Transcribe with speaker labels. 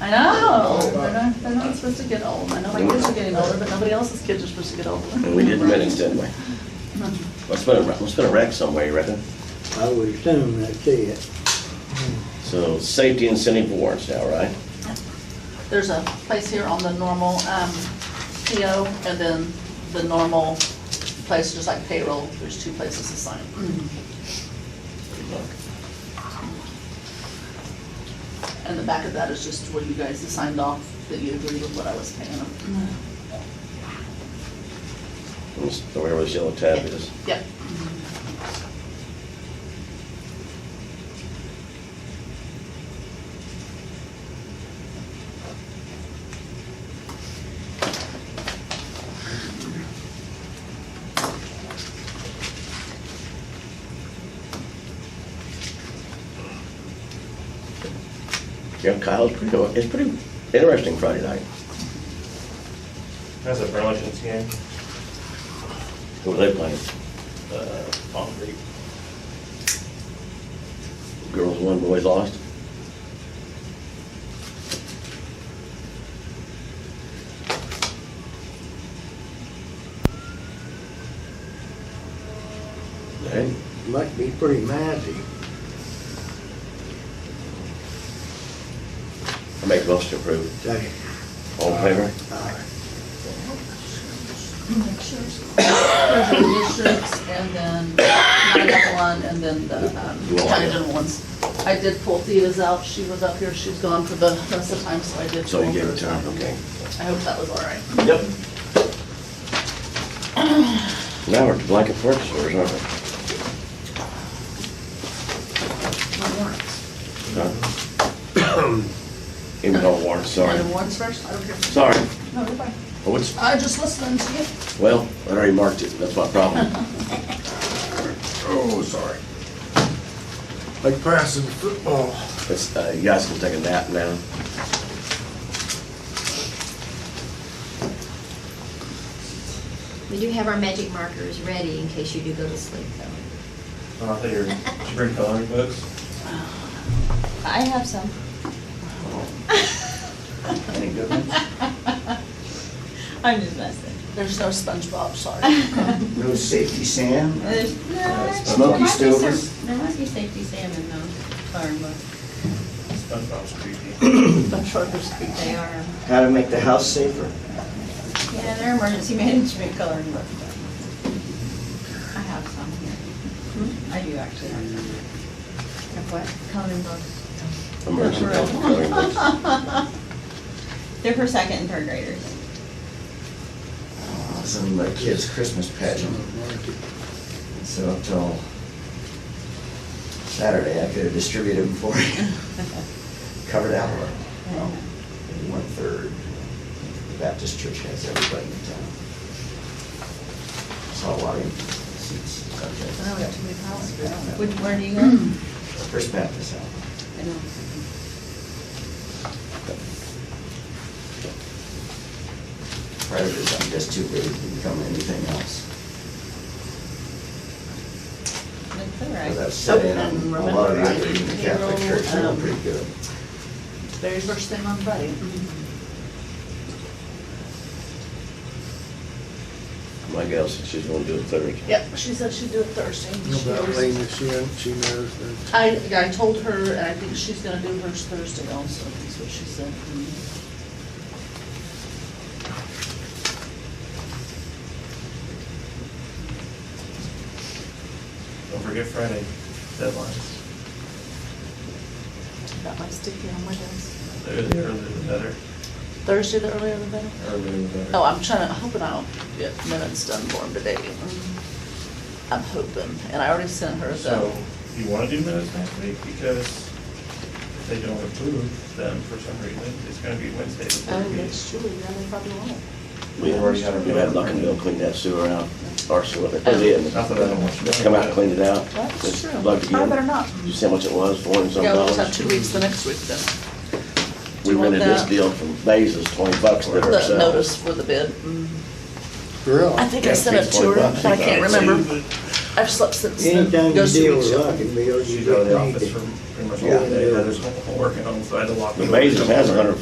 Speaker 1: I know, they're not, they're not supposed to get old, I know my kids are getting older, but nobody else's kids are supposed to get older.
Speaker 2: And we did minutes, didn't we? Must have been, a- must have been a wreck somewhere, you reckon?
Speaker 3: I would assume that's it.
Speaker 2: So safety incentive awards now, right?
Speaker 1: There's a place here on the normal, um, PO, and then the normal place, just like payroll, there's two places to sign.
Speaker 2: Mm.
Speaker 1: And the back of that is just where you guys signed off that you agree with what I was paying them.
Speaker 2: Mm. So Wherever this yellow tab is.
Speaker 1: Yep.
Speaker 2: Yeah, Kyle's pretty, it's pretty interesting Friday night.
Speaker 4: That's a Burlington's game.
Speaker 2: Who were they playing?
Speaker 4: Uh, Palm Creek.
Speaker 2: Girls won, boys lost? Hey,
Speaker 3: Must be pretty mighty.
Speaker 2: I make most approve.
Speaker 3: Say,
Speaker 2: All in favor?
Speaker 3: aye.
Speaker 1: There's the districts and then nine one and then the um,
Speaker 2: Well, I-
Speaker 1: Huntington ones. I did pull Thea's out, she was up here, she's gone for the rest of the time, so I did.
Speaker 2: So you
Speaker 1: pull
Speaker 2: gave it to
Speaker 1: hers
Speaker 2: her,
Speaker 1: out.
Speaker 2: okay.
Speaker 1: I hope that was all right.
Speaker 2: Yep. Now we're to blanket purchase orders, aren't we?
Speaker 1: My warrants.
Speaker 2: Huh? Even though warrant, sorry.
Speaker 1: And the warrants first, I don't care.
Speaker 2: Sorry.
Speaker 1: No, you're fine.
Speaker 2: Oh, it's,
Speaker 1: I just listened to you.
Speaker 2: well, I already marked it, that's my problem.
Speaker 5: Oh, sorry. Like passing the football.
Speaker 2: It's, uh, you guys can take a nap now.
Speaker 6: We do have our magic markers ready in case you do go to sleep, though.
Speaker 4: Oh, I thought you were, did you bring coloring books?
Speaker 6: I have some.
Speaker 4: Any good ones?
Speaker 6: I'm just messing.
Speaker 1: There's no SpongeBob, sorry.
Speaker 5: No safety, Sam?
Speaker 6: There's, no, there
Speaker 5: Smoky
Speaker 6: might be
Speaker 5: Stover?
Speaker 6: some- There must be safety salmon though, or look,
Speaker 4: SpongeBob's creepy.
Speaker 1: I'm sure there's.
Speaker 6: they are,
Speaker 5: How to make the house safer?
Speaker 6: yeah, they're emergency management coloring book. I have some here. I do actually have some. Of what? Coloring books.
Speaker 2: Emergency
Speaker 6: Right.
Speaker 2: health covering books.
Speaker 6: They're for second and third graders.
Speaker 5: It's in my kid's Christmas pageant. So up till Saturday, I could have distributed them for you. Covered out, well, one-third. The Baptist church has everybody in town. Saw a lot of seats up there.
Speaker 1: we have too many piles Hmm. here, don't
Speaker 6: Which, where do you go?
Speaker 5: First Baptist out.
Speaker 6: I know.
Speaker 5: Private is, I'm just too big to become anything else.
Speaker 6: That's all
Speaker 5: Because
Speaker 6: right.
Speaker 5: I've sat in on
Speaker 1: Oh, And
Speaker 5: a lot of the
Speaker 1: remember, I
Speaker 5: other
Speaker 1: did
Speaker 5: Catholic
Speaker 1: payroll,
Speaker 5: church, they're
Speaker 1: um,
Speaker 5: pretty good.
Speaker 1: we? Very first thing on Friday.
Speaker 2: My gal said she's gonna do it Thursday.
Speaker 1: Yep, she said she'd do it Thursday. and she
Speaker 7: About
Speaker 1: always-
Speaker 7: Lena, she, she knows that.
Speaker 1: I, I told her, and I think she's gonna do hers Thursday also, is what she said.
Speaker 4: Don't forget Friday deadlines.
Speaker 1: Got my sticky on my desk.
Speaker 4: The earlier the better.
Speaker 1: Thursday, the earlier the better?
Speaker 4: Earlier the better.
Speaker 1: Oh, I'm trying to, hoping I'll get minutes done for him today. I'm hoping, and I already sent her
Speaker 4: So,
Speaker 1: the,
Speaker 4: you wanna do minutes next week, because if they don't approve them for some reason, it's gonna be Wednesday before
Speaker 1: oh,
Speaker 4: the meeting.
Speaker 1: that's true, yeah, they probably won't.
Speaker 2: We
Speaker 4: We've already had our-
Speaker 2: we had luck and they'll clean that sewer out, our sewer, they put it in.
Speaker 4: Not that I don't want you to-
Speaker 2: Come out and clean it out.
Speaker 1: Oh. That's
Speaker 2: It's
Speaker 1: true.
Speaker 2: Plugged
Speaker 1: I better
Speaker 2: again.
Speaker 1: not.
Speaker 2: You see how much it was, four and some
Speaker 1: Yeah, we'll just have
Speaker 2: dollars?
Speaker 1: two weeks the next week then.
Speaker 2: We
Speaker 1: you want
Speaker 2: rented this
Speaker 1: that?
Speaker 2: deal from Bases, twenty bucks did
Speaker 1: The notice
Speaker 2: ourselves.
Speaker 1: for the bid. Mm. I
Speaker 7: Really?
Speaker 1: think I sent it to her, but I can't remember. I've slept since. then.
Speaker 3: Anytime
Speaker 1: Go
Speaker 3: you
Speaker 1: see
Speaker 3: deal
Speaker 1: what
Speaker 3: with
Speaker 1: you-
Speaker 3: Luckin Bill, you
Speaker 4: She's out of the
Speaker 3: don't
Speaker 4: office
Speaker 3: need
Speaker 4: for
Speaker 3: it.
Speaker 4: pretty much all day,
Speaker 3: Yeah.
Speaker 4: Heather's working home, so I had to lock the door.
Speaker 2: Bases has a hundred